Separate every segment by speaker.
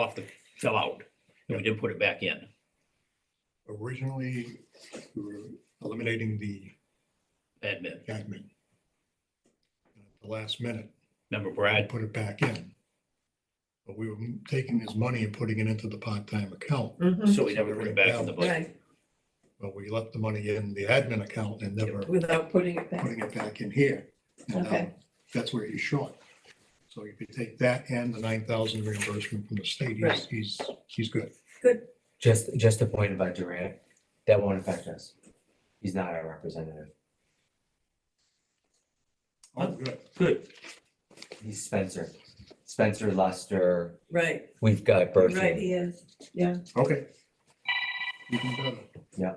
Speaker 1: off the, fell out, and we didn't put it back in.
Speaker 2: Originally, we were eliminating the
Speaker 1: Admin,
Speaker 2: admin. At The last minute,
Speaker 1: remember
Speaker 2: I
Speaker 1: Brad?
Speaker 2: put it back in. But we were taking his money and putting it into the part-time account,
Speaker 3: Mhm.
Speaker 1: So we never put it back in the budget.
Speaker 3: Right,
Speaker 2: but we left the money in the admin account and never
Speaker 3: without putting it back.
Speaker 2: putting it back in here. And now
Speaker 3: Okay.
Speaker 2: That's where he's short. So if you take that and the nine thousand reimbursement from the state, he's,
Speaker 3: Right.
Speaker 2: he's, he's good.
Speaker 4: Just, just a point about Durant, that won't affect us. He's not our representative.
Speaker 2: All good.
Speaker 1: Good.
Speaker 4: He's Spencer. Spencer Lester,
Speaker 3: Right,
Speaker 4: we've got
Speaker 3: right,
Speaker 4: Berthium.
Speaker 3: he is.
Speaker 2: Okay. Even better.
Speaker 4: Yeah.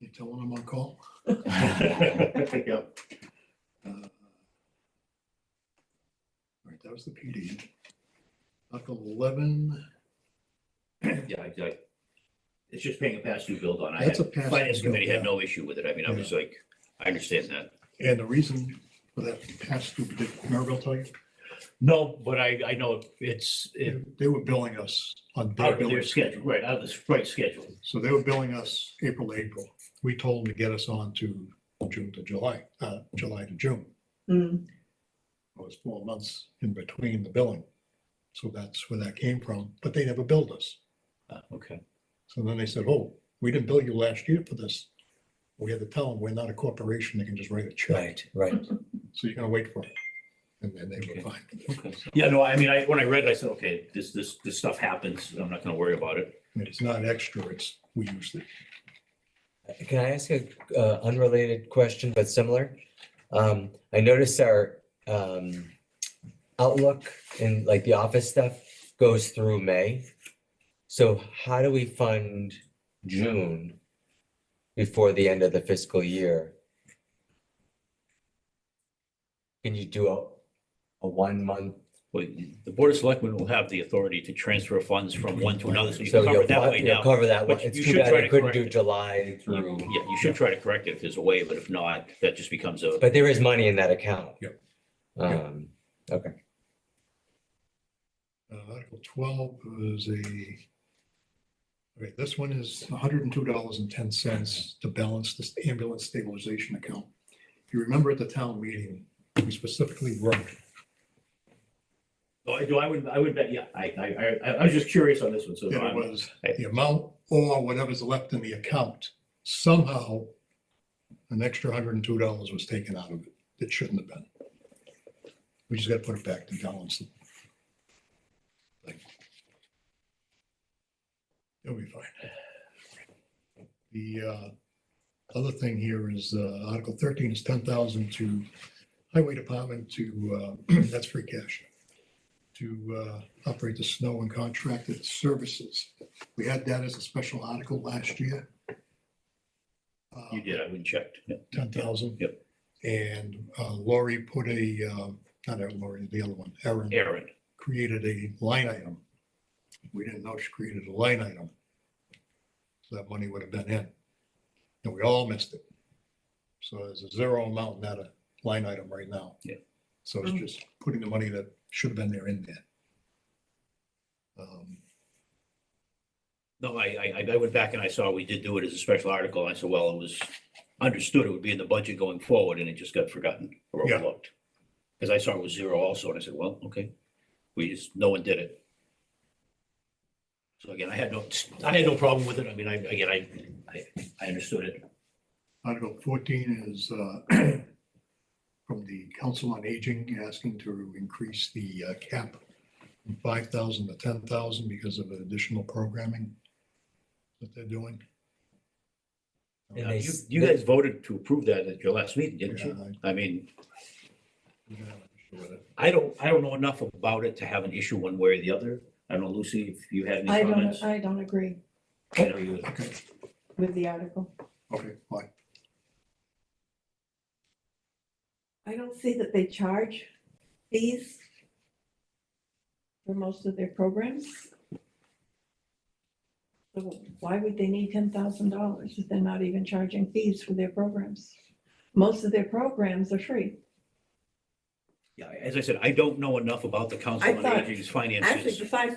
Speaker 2: You telling him I'm on call?
Speaker 1: Yep.
Speaker 2: Uh, All right, that was the PD. Article eleven,
Speaker 1: Yeah, I- I- It's just paying a past due bill on. I
Speaker 2: that's a
Speaker 1: had,
Speaker 2: pass.
Speaker 1: finance committee had no issue with it. I mean, I was like, I understand that.
Speaker 2: And the reason for that pass through, did Maribel tell you?
Speaker 1: No, but I, I know it's, it,
Speaker 2: They- They were billing us on their
Speaker 1: out of their
Speaker 2: billing
Speaker 1: schedule, right, out of the right schedule.
Speaker 2: So they were billing us April, to April. We told them to get us on to June to July, uh, July to June.
Speaker 3: Mm,
Speaker 2: It was four months in between the billing. So that's where that came from, but they never billed us.
Speaker 1: Uh, Okay.
Speaker 2: So then they said, oh, we didn't bill you last year for this. We had to tell them, we're not a corporation that can just write a check.
Speaker 4: Right, right.
Speaker 2: So you're gonna wait for it. And then they were
Speaker 1: Okay.
Speaker 2: fine.
Speaker 1: Okay. Yeah, no, I mean, I, when I read, it, I said, okay, this, this, this stuff happens. I'm not gonna worry about it.
Speaker 2: And it's not extra, it's, we use it.
Speaker 4: Can I ask a uh, unrelated question but similar? Um, I noticed our um, Outlook and like the office stuff goes through May. So how do we fund June before the end of the fiscal year? Can you do a, a one month?
Speaker 1: Well, the Board of Selectmen will have the authority to transfer funds from one to another, so you
Speaker 4: So
Speaker 1: can cover
Speaker 4: you'll
Speaker 1: it that
Speaker 4: co-
Speaker 1: way
Speaker 4: you'll
Speaker 1: now.
Speaker 4: Cover that one.
Speaker 1: but
Speaker 4: It's
Speaker 1: you
Speaker 4: too
Speaker 1: should
Speaker 4: bad
Speaker 1: try
Speaker 4: I
Speaker 1: to
Speaker 4: couldn't do
Speaker 1: correct it.
Speaker 4: July through,
Speaker 1: Yeah, you should try to correct it if there's a way, but if not, that just becomes a,
Speaker 4: but there is money in that account.
Speaker 2: Yep. Yep.
Speaker 4: Um,
Speaker 2: Uh, Article twelve is a. Okay, this one is hundred and two dollars and ten cents to balance this ambulance stabilization account. If you remember at the town meeting, we specifically wrote,
Speaker 1: Oh, I do, I would, I would bet, yeah, I, I, I, I was just curious on this one, so.
Speaker 2: that it
Speaker 1: I'm-
Speaker 2: was the amount or whatever's left in the account. Somehow, an extra hundred and two dollars was taken out of it. It shouldn't have been. We just gotta put it back to balance. it. Like, It'll be fine. The uh, other thing here is uh, Article thirteen is ten thousand to Highway Department to, uh, that's free cash. To uh, operate the snow and contracted services. We had that as a special article last year. Uh,
Speaker 1: You did, I went and checked. yeah.
Speaker 2: ten thousand.
Speaker 1: Yep.
Speaker 2: And uh, Lori put a, uh, not Lori, the other one, Erin,
Speaker 1: Aaron,
Speaker 2: created a line item. We didn't know she created a line item. So that money would have been in. And we all missed it. So there's a zero amount in that uh, line item right now.
Speaker 1: Yeah.
Speaker 2: So it's
Speaker 3: Mhm.
Speaker 2: just putting the money that should have been there in there. Um,
Speaker 1: no, I, I, I went back and I saw we did do it as a special article, I said, well, it was understood it would be in the budget going forward, and it just got forgotten or
Speaker 2: Yeah.
Speaker 1: overlooked. Because I saw it was zero also, and I said, well, okay, we just, no one did it. So again, I had no, I had no problem with it, I mean, I, again, I, I, I understood it.
Speaker 2: Article fourteen is uh, from the Council on Aging, asking to increase the uh, cap from five thousand to ten thousand because of additional programming that they're doing.
Speaker 4: And
Speaker 1: Now,
Speaker 4: they
Speaker 1: You,
Speaker 4: s-
Speaker 1: you
Speaker 4: they-
Speaker 1: guys voted to approve that at your last meeting, didn't
Speaker 2: Yeah,
Speaker 1: you?
Speaker 2: I-
Speaker 1: I mean,
Speaker 2: we don't have an issue with it.
Speaker 1: I don't, I don't know enough about it to have an issue one way or the other. I don't know, Lucy, if you had
Speaker 3: I
Speaker 1: any comments.
Speaker 3: don't, I don't agree
Speaker 1: I know you-
Speaker 2: Okay,
Speaker 3: with the article.
Speaker 2: okay, fine.
Speaker 3: I don't see that they charge fees for most of their programs. So Why would they need ten thousand dollars if they're not even charging fees for their programs? Most of their programs are free.
Speaker 1: Yeah, as I said, I don't know enough about the Council
Speaker 3: I
Speaker 1: on
Speaker 3: thought-
Speaker 1: Aging's finances.
Speaker 3: Actually, the five